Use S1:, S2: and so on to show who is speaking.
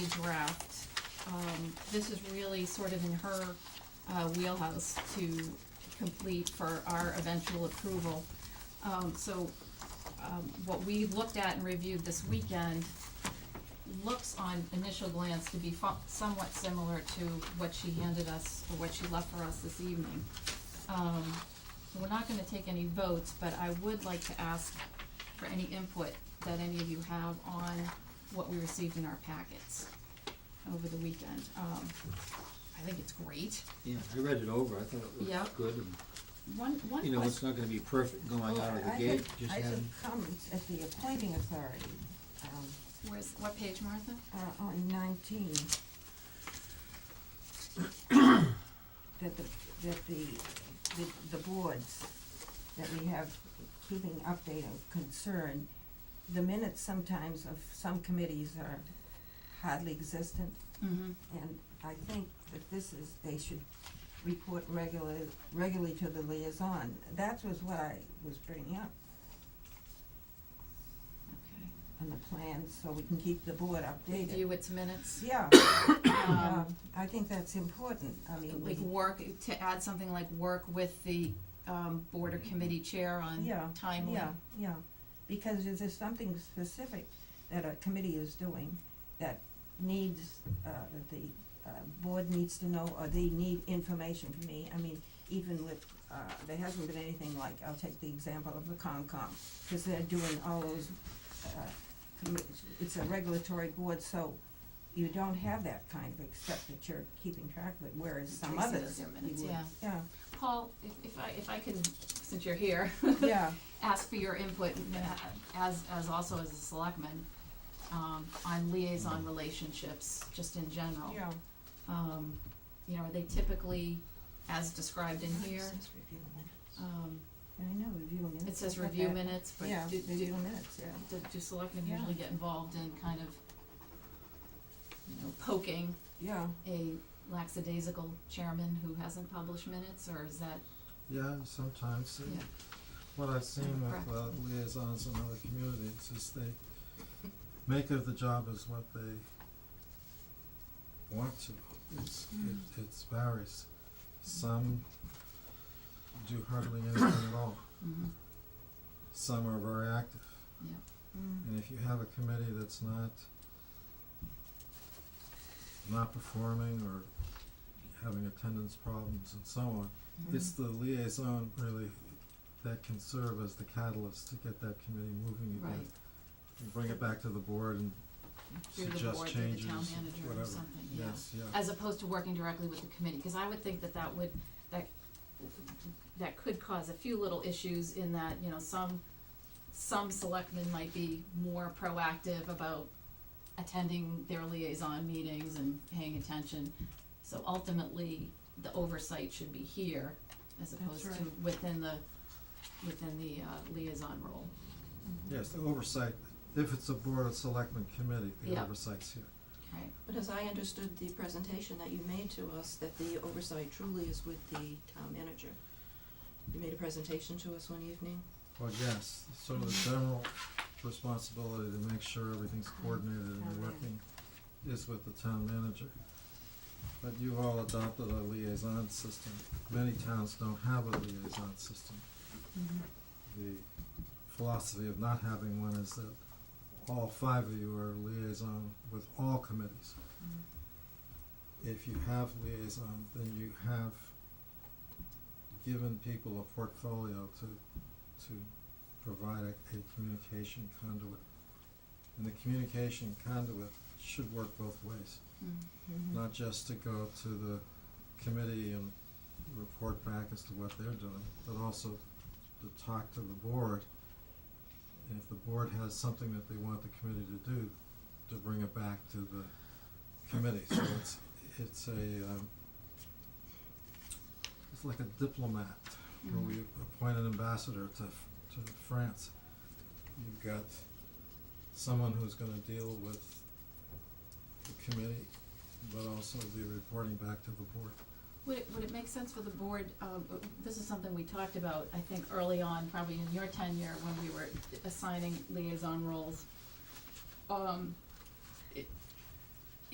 S1: draft. Um, this is really sort of in her, uh, wheelhouse to complete for our eventual approval. Um, so, um, what we looked at and reviewed this weekend looks on initial glance to be fo- somewhat similar to what she handed us, or what she left for us this evening. Um, we're not gonna take any votes, but I would like to ask for any input that any of you have on what we received in our packets over the weekend. Um, I think it's great.
S2: Yeah, I read it over, I thought it
S1: Yeah.
S2: looked good, and,
S1: One, one
S2: you know, it's
S1: question,
S2: not gonna be perfect going
S3: Well,
S2: out of
S3: Oh, I
S2: the
S3: had-
S2: gate, just
S3: I
S2: having,
S3: took comments at the appointing authority, um,
S1: where's, what page, Martha?
S3: uh, on nineteen. That the, that the, the, the boards, that we have keeping update of concern, the minutes sometimes of some committees are hardly existent.
S1: Mm-hmm.
S3: And I think that this is, they should report regularly, regularly to the liaison. That was what I was bringing up
S1: Okay.
S3: on the plan, so we can keep the board updated.
S1: Review its minutes.
S3: Yeah,
S1: Um,
S3: um, I think that's important. I mean,
S1: like
S3: we,
S1: work, to add something like work with the, um, board or committee chair on
S3: yeah,
S1: timely.
S3: yeah, yeah. Because if there's something specific that a committee is doing that needs, uh, that the, uh, board needs to know, or they need information from me, I mean, even with, uh, there hasn't been anything like, I'll take the example of the Concom, cause they're doing all those, uh, commi- it's a regulatory board, so you don't have that kind of, except that you're keeping track of it, whereas some
S1: Tracy does
S3: others,
S1: their
S3: you
S1: minutes,
S3: would-
S1: yeah.
S3: yeah,
S1: Paul, if, if I, if I can, since you're here,
S3: yeah,
S1: ask for your input uh, as, as also as a selectman, um, on liaison relationships, just in general.
S3: yeah.
S1: Um, you know, are they typically as described in here? Um,
S3: I know, review minutes.
S1: it says
S3: I got
S1: review
S3: that.
S1: minutes, but
S3: Yeah,
S1: do, do,
S3: review minutes, yeah.
S1: do, do selectmen
S3: Yeah.
S1: usually get involved in kind of, you know, poking
S3: Yeah,
S1: a lackadaisical chairman who hasn't published minutes, or is that,
S4: Yeah, sometimes. uh,
S1: Yeah.
S4: What I've seen with
S1: Correct.
S4: uh, liaisons in other communities is they make of the job as what they want to. It's,
S1: Hmm.
S4: it, it varies. Some do hardly anything at all.
S1: mhm,
S4: Some are very active.
S3: mm,
S4: And if you have a committee that's not not performing or having attendance problems and so on,
S1: mm-hmm.
S4: it's the liaison really that can serve as the catalyst to get that committee moving again.
S1: Right.
S4: And bring it back to the board and
S1: through the
S4: suggest
S1: board, through the
S4: changes,
S1: town manager or
S4: whatever.
S1: something, yeah? Uh,
S4: Yes, yeah.
S1: As opposed to working directly with the committee, cause I would think that that would, that, that could cause a few little issues in that, you know, some, some selectmen might be more proactive about attending their liaison meetings and paying attention. So ultimately, the oversight should be here as opposed to
S3: right.
S1: within the, within the uh, liaison role.
S4: Yes, the oversight, if it's a board of selectmen committee, the
S1: Yeah.
S4: oversight's here.
S1: Right.
S5: But as I understood the presentation that you made to us, that the oversight truly is with the town manager. You made a presentation to us one evening.
S4: Well, yes, sort of the general responsibility to make sure everything's
S1: Mm-hmm.
S4: coordinated
S3: Town
S4: and working is with the town manager. But you all adopted a liaison system. Many towns don't have a liaison system. The philosophy of not having one is that all five of you are liaison with all committees. If you have liaison, then you have given people a portfolio to to provide a, a communication conduit. And the communication conduit should work both ways,
S1: Mm-hmm.
S3: Mm-hmm.
S4: not just to go to the committee and report back as to what they're doing, but also to talk to the board. And if the board has something that they want the committee to do, to bring it back to the committee, so it's, it's a, um, it's like a diplomat where we appoint an ambassador to, f- to France. You've got someone who's gonna deal with the committee, but also be reporting back to the board.
S1: Would it, would it make sense for the board, um, uh, this is something we talked about, I think, early on, probably in your tenure, when we were assigning liaison roles, um,